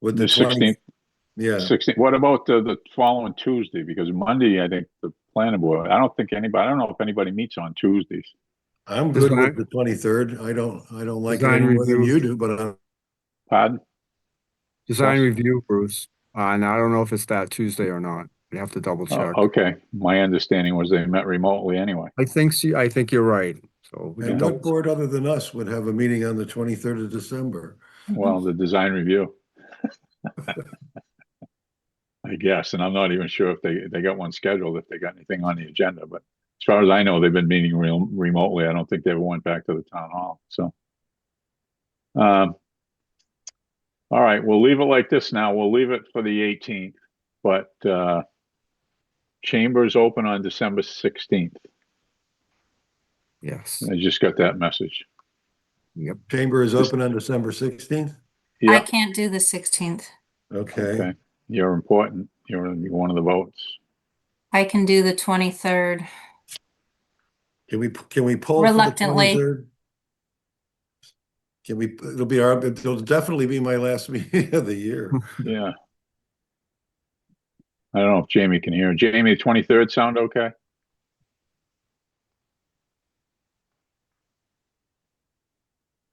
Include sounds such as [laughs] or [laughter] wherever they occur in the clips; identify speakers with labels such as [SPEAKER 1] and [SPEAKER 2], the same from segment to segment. [SPEAKER 1] With
[SPEAKER 2] The
[SPEAKER 1] twen-
[SPEAKER 2] sixteenth,
[SPEAKER 1] Yeah,
[SPEAKER 2] sixteenth, what about the, the following Tuesday? Because Monday, I think the planning board, I don't think anybody, I don't know if anybody meets on Tuesdays.
[SPEAKER 1] I'm good
[SPEAKER 3] Design-
[SPEAKER 1] with the twenty-third. I don't, I don't like it
[SPEAKER 3] Design
[SPEAKER 1] any more than
[SPEAKER 3] review.
[SPEAKER 1] you do, but uh, I'm
[SPEAKER 2] Pardon?
[SPEAKER 3] Design
[SPEAKER 2] Yes.
[SPEAKER 3] review, Bruce, uh, and I don't know if it's that Tuesday or not. I'd have to double
[SPEAKER 2] Oh,
[SPEAKER 3] check.
[SPEAKER 2] Okay, my understanding was they met remotely anyway.
[SPEAKER 3] I think, see, I think you're right, so. we can
[SPEAKER 1] And what
[SPEAKER 3] double.
[SPEAKER 1] board other than us would have a meeting on the twenty-third of December?
[SPEAKER 2] Well, the design review. I guess, and I'm not even sure if they, they got one scheduled, if they got anything on the agenda, but as far as I know, they've been meeting real remotely. I don't think they ever went back to the town hall, so. Um. All right, we'll leave it like this now. We'll leave it for the eighteenth, but, uh. Chambers open on December sixteenth.
[SPEAKER 3] Yes,
[SPEAKER 2] I just got that message.
[SPEAKER 1] Chamber is
[SPEAKER 2] Just-
[SPEAKER 1] open on December sixteenth?
[SPEAKER 4] I
[SPEAKER 2] Yeah,
[SPEAKER 4] can't do the sixteenth.
[SPEAKER 1] Okay,
[SPEAKER 2] okay. You're important. You're you're one of the votes.
[SPEAKER 4] I can do the twenty-third.
[SPEAKER 1] can we, can we pull? for the
[SPEAKER 4] Reluctantly.
[SPEAKER 1] 23rd? Can we, it'll be our, it'll definitely be my last [laughs] meeting of the
[SPEAKER 2] [laughs]
[SPEAKER 1] year.
[SPEAKER 2] Yeah. I don't know if Jamie can hear. Jamie, the twenty-third sound okay?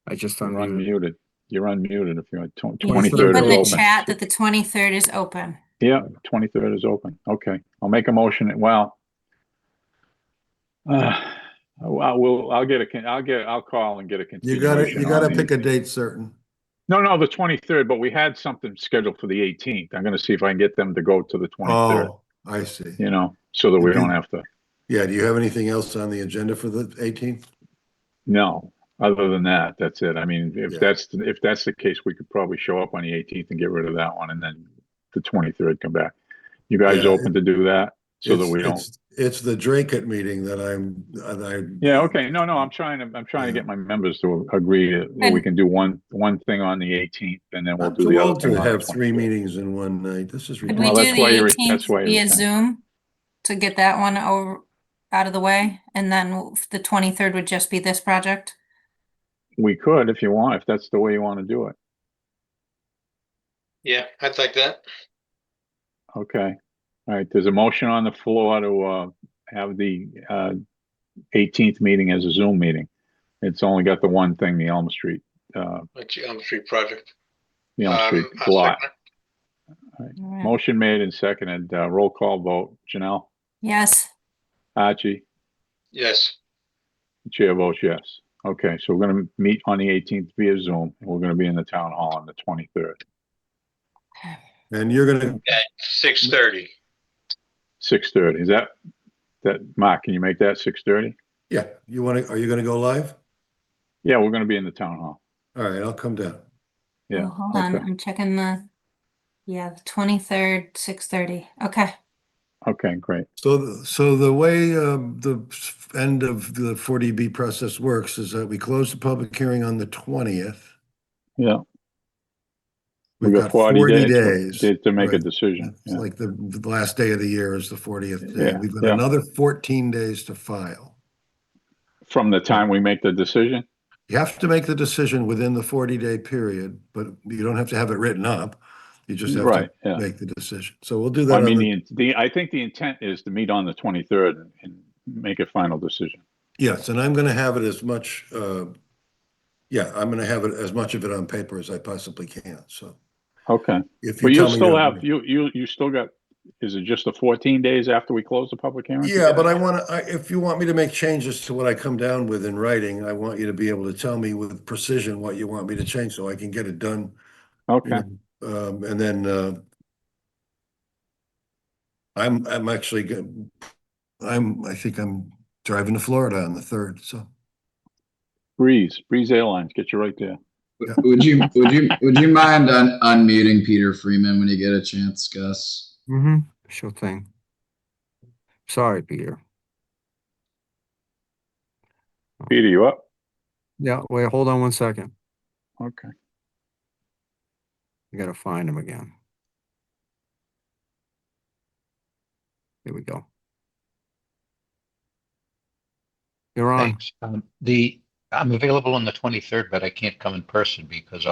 [SPEAKER 3] I just
[SPEAKER 2] You're
[SPEAKER 3] unmuted.
[SPEAKER 2] unmuted. You're unmuted if you're on
[SPEAKER 4] Put
[SPEAKER 2] twenty-third
[SPEAKER 4] in the
[SPEAKER 2] is open.
[SPEAKER 4] chat that the twenty-third is open.
[SPEAKER 2] Yeah, twenty-third is open. Okay, I'll make a motion. Well. Uh, well, we'll, I'll get a, con- I'll get, I'll call and get a
[SPEAKER 1] You
[SPEAKER 2] continuation.
[SPEAKER 1] gotta, you
[SPEAKER 2] on
[SPEAKER 1] gotta
[SPEAKER 2] the-
[SPEAKER 1] pick a date certain.
[SPEAKER 2] No, no, the twenty-third, but we had something scheduled for the eighteenth. I'm gonna see if I can get them to go to the twenty-third,
[SPEAKER 1] Oh, I see.
[SPEAKER 2] you know, so that we
[SPEAKER 1] Okay.
[SPEAKER 2] don't have to,
[SPEAKER 1] Yeah, do you have anything else on the agenda for the eighteenth?
[SPEAKER 2] No, other than that, that's it. I mean, if
[SPEAKER 1] Yeah.
[SPEAKER 2] that's, if that's the case, we could probably show up on the eighteenth and get rid of that one and then the twenty-third come back. You guys
[SPEAKER 1] Yeah,
[SPEAKER 2] open to do that so that
[SPEAKER 1] It's-
[SPEAKER 2] we don't?
[SPEAKER 1] it's- It's the Drakeet meeting that I'm, that I.
[SPEAKER 2] Yeah, okay. No, no, I'm trying to, I'm trying to
[SPEAKER 1] Yeah.
[SPEAKER 2] get my members to agree that we
[SPEAKER 4] And-
[SPEAKER 2] can do one, one thing on the eighteenth and then we'll
[SPEAKER 1] I'm
[SPEAKER 2] do
[SPEAKER 1] too
[SPEAKER 2] the
[SPEAKER 1] old
[SPEAKER 2] other thing.
[SPEAKER 1] to
[SPEAKER 2] on the
[SPEAKER 1] have three
[SPEAKER 2] 23rd.
[SPEAKER 1] meetings in one night. This is
[SPEAKER 4] Could
[SPEAKER 1] ridiculous.
[SPEAKER 4] we
[SPEAKER 2] Well,
[SPEAKER 4] do
[SPEAKER 2] that's why
[SPEAKER 4] the
[SPEAKER 2] you're-
[SPEAKER 4] eighteenth
[SPEAKER 2] that's why you're
[SPEAKER 4] via
[SPEAKER 2] saying.
[SPEAKER 4] Zoom to get that one over, out of the way? And then the twenty-third would just be this project?
[SPEAKER 2] We could if you want, if that's the way you want to do it.
[SPEAKER 5] Yeah, I'd like that.
[SPEAKER 2] Okay. All right, there's a motion on the floor to, uh, have the, uh, eighteenth meeting as a Zoom meeting. It's only got the one thing, the Elm Street, uh,
[SPEAKER 5] Like Elm Street project.
[SPEAKER 2] the Elm
[SPEAKER 5] Um,
[SPEAKER 2] Street
[SPEAKER 5] I'll
[SPEAKER 2] lot.
[SPEAKER 5] second it.
[SPEAKER 4] Alright.
[SPEAKER 2] Motion made and seconded, uh, roll call vote, Janelle,
[SPEAKER 4] Yes,
[SPEAKER 2] Archie,
[SPEAKER 5] Yes,
[SPEAKER 2] the chair votes yes. Okay, so we're gonna meet on the eighteenth via Zoom, and we're gonna be in the town hall on the twenty-third,
[SPEAKER 1] And you're gonna,
[SPEAKER 5] six thirty.
[SPEAKER 2] six-thirty, is that, that, Mark, can you make that six-thirty?
[SPEAKER 1] yeah, you wanna, are you gonna go live?
[SPEAKER 2] Yeah, we're gonna be in the town hall,
[SPEAKER 1] All right, I'll come down.
[SPEAKER 2] yeah.
[SPEAKER 4] Oh, hold on,
[SPEAKER 2] okay.
[SPEAKER 4] I'm checking the, yeah, the twenty-third, six-thirty, okay.
[SPEAKER 2] Okay, great,
[SPEAKER 1] So, the- so the way um, the s- end of the 40B process works is that we close the public hearing on the 20th.
[SPEAKER 2] yeah.
[SPEAKER 1] We've got 40 days.
[SPEAKER 2] to- To make a
[SPEAKER 1] Right.
[SPEAKER 2] decision.
[SPEAKER 1] It's
[SPEAKER 2] yeah.
[SPEAKER 1] like the the last day of the year is the 40th day.
[SPEAKER 2] Yeah,
[SPEAKER 1] We've got
[SPEAKER 2] yeah.
[SPEAKER 1] another 14 days to file.
[SPEAKER 2] From the time we make the decision?
[SPEAKER 1] You have to make the decision within the 40-day period, but you don't have to have it written up. You just have
[SPEAKER 2] Right,
[SPEAKER 1] to
[SPEAKER 2] yeah.
[SPEAKER 1] make the decision. So we'll do
[SPEAKER 2] I
[SPEAKER 1] that. on
[SPEAKER 2] mean,
[SPEAKER 1] the-
[SPEAKER 2] the, the, I think the intent is to meet on the twenty-third and, and make a final decision.
[SPEAKER 1] Yes, and I'm going to have it as much, uh, yeah, I'm going to have it as much of it on paper as I possibly can. So
[SPEAKER 2] Okay,
[SPEAKER 1] if you
[SPEAKER 2] but
[SPEAKER 1] tell
[SPEAKER 2] you
[SPEAKER 1] me.
[SPEAKER 2] still
[SPEAKER 1] you're-
[SPEAKER 2] have, you, you, you still got, is it just the fourteen days after we close the public hearing?
[SPEAKER 1] Yeah, but I want to, if you want me to make changes to what I come down with in writing, I want you to be able to tell me with precision what you want me to change so I can get it done. you
[SPEAKER 2] Okay,
[SPEAKER 1] know, Um, and then, uh, I'm, I'm actually, go- I'm, I think I'm driving to Florida on the third, so.
[SPEAKER 2] Breeze, Breeze Airlines, get you right there.
[SPEAKER 1] Yeah.
[SPEAKER 6] Would you, would you, would you mind un- unmuting Peter Freeman when you get a chance, Gus?
[SPEAKER 3] Mm-hmm, sure thing. Sorry, Peter.
[SPEAKER 2] Peter, you up?
[SPEAKER 3] Yeah, wait, hold on one second.
[SPEAKER 2] Okay.
[SPEAKER 3] I gotta find him again. Here we go. You're on.
[SPEAKER 7] Thanks. Um, The, I'm available on the 23rd, but I can't come in person because I'll